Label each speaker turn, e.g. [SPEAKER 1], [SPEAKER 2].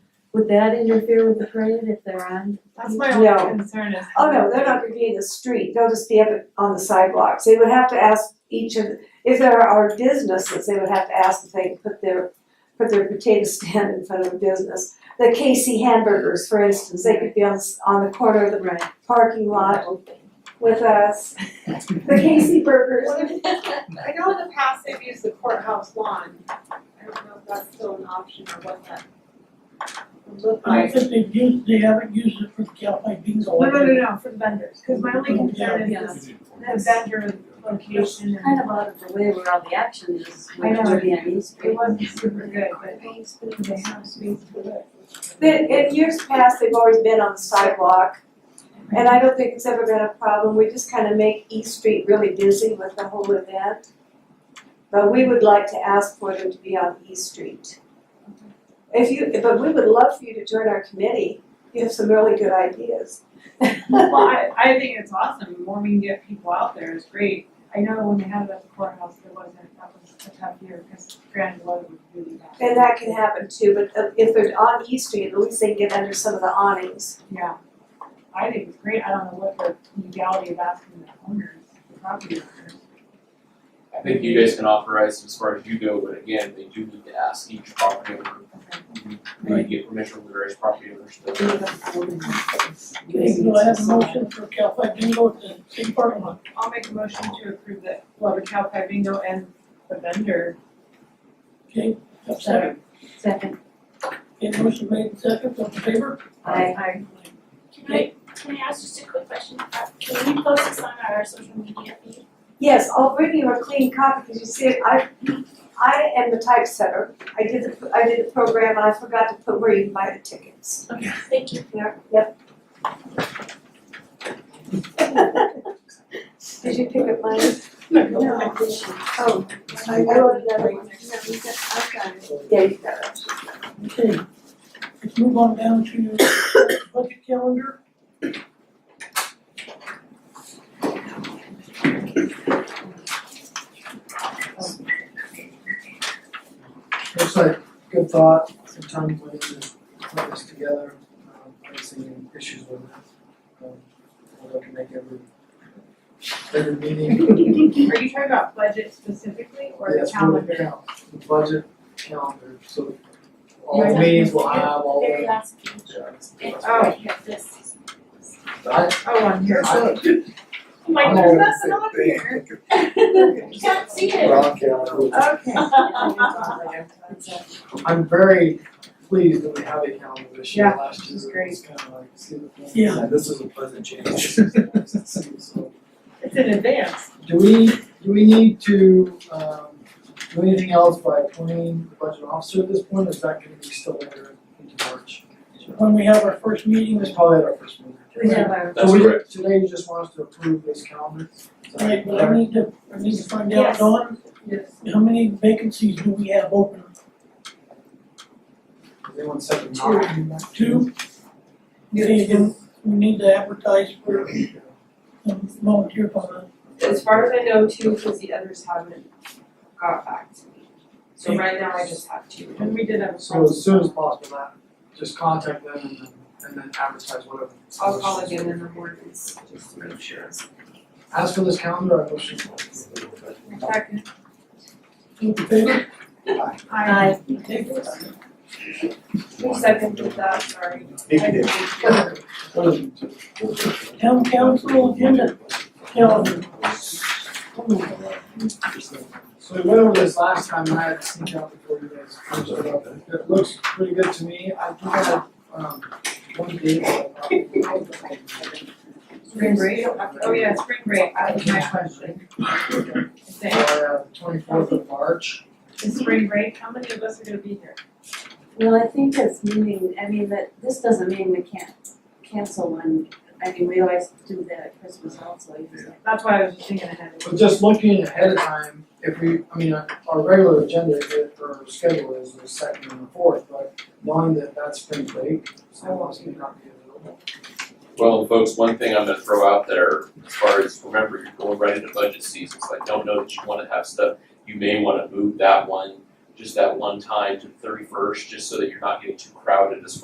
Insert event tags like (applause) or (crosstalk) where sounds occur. [SPEAKER 1] Would that interfere with the parade if they're on?
[SPEAKER 2] That's my only
[SPEAKER 3] No.
[SPEAKER 2] concern is.
[SPEAKER 3] Oh, no, they're not gonna be in the street, they'll just be up on the sidewalks, they would have to ask each of, if there are businesses, they would have to ask if they can put their, put their potato (laughs) stand in front of a business. The KC hamburgers, for instance, they could be on, s- on the corner of the
[SPEAKER 1] Right.
[SPEAKER 3] parking lot with us, the KC burgers.
[SPEAKER 2] Well, if- I know in the past they've used the courthouse lawn. I don't know if that's still an option or what that. would look
[SPEAKER 4] I
[SPEAKER 2] like.
[SPEAKER 4] think they've used, they haven't used it for Calpite bingo.
[SPEAKER 2] No, no, no, no, for the vendors, cause my only concern
[SPEAKER 1] Yeah.
[SPEAKER 2] is this, the vendor location and
[SPEAKER 1] Kind of out of the way where all the action is,
[SPEAKER 2] I know.
[SPEAKER 1] which would be on East
[SPEAKER 2] it
[SPEAKER 1] Street.
[SPEAKER 2] wasn't super good, (laughs) but they have space for that.
[SPEAKER 3] In, in years past, they've always been on the sidewalk, and I don't think it's ever been a problem, we just kinda make East Street really busy with the whole event. But we would like to ask for them to be on East Street. If you, but we would love for you to join our committee, you have some really good ideas.
[SPEAKER 2] Well, I, I think it's awesome, the more we can get people out there is great. I know when they had it at the courthouse, there wasn't, that was a tough year, cause grand weather was really bad.
[SPEAKER 3] And that can happen too, but uh, if they're on East Street, at least they can get under some of the awnings.
[SPEAKER 2] Yeah, I think it's great, I don't know what the legality of asking the owners, the property owners.
[SPEAKER 5] I think you guys can authorize as far as you go, but again, they do need to ask each property owner. We need to get permission from the various property owners to.
[SPEAKER 4] They do I have a motion for Calpite bingo at the city parking lot.
[SPEAKER 2] I'll make a motion to approve the, well, the cow pie bingo and the vendor.
[SPEAKER 4] Okay, that's second.
[SPEAKER 1] Second.
[SPEAKER 4] Okay, motion made second, all in favor?
[SPEAKER 1] I,
[SPEAKER 2] I,
[SPEAKER 6] Can I, can I ask just a quick question? Uh, Can we post this on our social media feed?
[SPEAKER 3] Yes, I'll bring you a clean copy, because you see, I, I am the typesetter. I did the, I did the program, and I forgot to put where you can buy the tickets.
[SPEAKER 6] Okay, thank you.
[SPEAKER 3] Yeah, yep. (laughs) Did you pick up mine?
[SPEAKER 1] no, I didn't.
[SPEAKER 3] Oh, I wrote it down. Yeah, you got it.
[SPEAKER 4] Okay, let's move on down to budget calendar.
[SPEAKER 7] Looks like good thought, some time went into putting this together, um, I don't see any issues with it. Um, I'll look to make every, every meeting.
[SPEAKER 2] are you talking about budget specifically or the
[SPEAKER 7] Yes,
[SPEAKER 2] calendar?
[SPEAKER 7] cal- The budget calendar, so all meetings will have all
[SPEAKER 6] Very
[SPEAKER 7] the.
[SPEAKER 6] last page. It's
[SPEAKER 2] Oh.
[SPEAKER 6] right here, this.
[SPEAKER 7] I,
[SPEAKER 2] Oh, on here. (laughs)
[SPEAKER 7] I,
[SPEAKER 2] I'm like,
[SPEAKER 7] I'm
[SPEAKER 2] there's
[SPEAKER 7] always
[SPEAKER 2] nothing
[SPEAKER 7] the
[SPEAKER 2] on here. (laughs)
[SPEAKER 6] You can't see it.
[SPEAKER 7] wrong calendar.
[SPEAKER 2] Okay.
[SPEAKER 7] I'm very pleased that we have a calendar this year,
[SPEAKER 2] Yeah,
[SPEAKER 7] last
[SPEAKER 2] is
[SPEAKER 7] year, it was kind of like, see the.
[SPEAKER 4] Yeah.
[SPEAKER 7] This is a pleasant (laughs) change. So,
[SPEAKER 2] It's in advance.
[SPEAKER 7] Do we, do we need to, um, do anything else by appointing the budget officer at this point, or is that gonna be still later into March?
[SPEAKER 4] When we have our first meeting,
[SPEAKER 7] It's probably at our first meeting.
[SPEAKER 1] we have our,
[SPEAKER 5] That's
[SPEAKER 7] So we-
[SPEAKER 5] correct.
[SPEAKER 7] Today you just want us to approve this calendar? Is that
[SPEAKER 4] right, but I need to, I need to find out,
[SPEAKER 3] Yes.
[SPEAKER 4] Dawn,
[SPEAKER 2] Yes.
[SPEAKER 4] how many vacancies do we have open?
[SPEAKER 7] Does anyone second that?
[SPEAKER 4] Two? Okay, then we need to advertise for um, volunteer fund.
[SPEAKER 8] As far as I know, two, because the others haven't got back to me. So right now I just have two.
[SPEAKER 2] And we did have a.
[SPEAKER 7] So as soon as possible, that, just contact them and then, and then advertise whatever.
[SPEAKER 8] I'll call again in the mornings, just to make sure.
[SPEAKER 7] As for this calendar, I motion.
[SPEAKER 2] Second.
[SPEAKER 4] Those in favor?
[SPEAKER 7] Aye.
[SPEAKER 2] I.
[SPEAKER 4] Okay.
[SPEAKER 8] Who seconded that, sorry?
[SPEAKER 4] Town council agenda calendar.
[SPEAKER 7] So we went over this last time and I had to sneak out before you guys finished it up. It looks pretty good to me. I do have, um, one date. that I-
[SPEAKER 2] Spring break, oh yeah, spring break, that was my question. Is
[SPEAKER 7] I
[SPEAKER 2] it-
[SPEAKER 7] have uh, twenty-fourth of March.
[SPEAKER 2] is spring break, how many of us are gonna be here?
[SPEAKER 1] well, I think it's meaning, I mean, that, this doesn't mean we can't cancel one. I mean, we always do that at Christmas also, usually.
[SPEAKER 2] That's why I was just thinking ahead.
[SPEAKER 7] But just looking ahead of time, if we, I mean, our regular agenda is- or schedule is the second and the fourth, but knowing that that's spring break, so I want to not be available.
[SPEAKER 5] Well, folks, one thing I'm gonna throw out there, as far as, remember, you're going right into budget season, so I don't know that you wanna have stuff, you may wanna move that one, just that one time to thirty-first, just so that you're not getting too crowded as far